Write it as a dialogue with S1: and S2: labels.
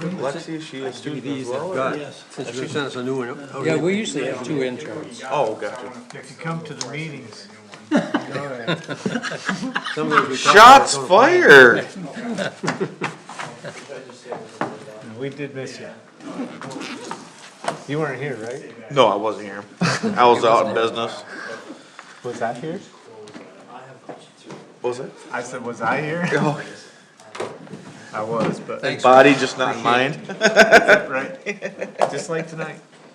S1: Lexi, she a student as well? or-
S2: Got it.
S3: Yes.
S2: Since you sent us a new one. oh,
S4: Yeah, we usually have two interns.
S1: Oh, gotcha.
S3: If you come to the meetings.
S2: some of those we talked about,
S1: Shots
S2: some of
S1: fired!
S3: We did miss you. You weren't here, right?
S1: No, I wasn't here. I was out in business.
S3: Was I here?
S1: Was it?
S3: I said, was I here? I was, but,
S2: Thanks.
S1: Body just not in mind.
S3: right, just like tonight.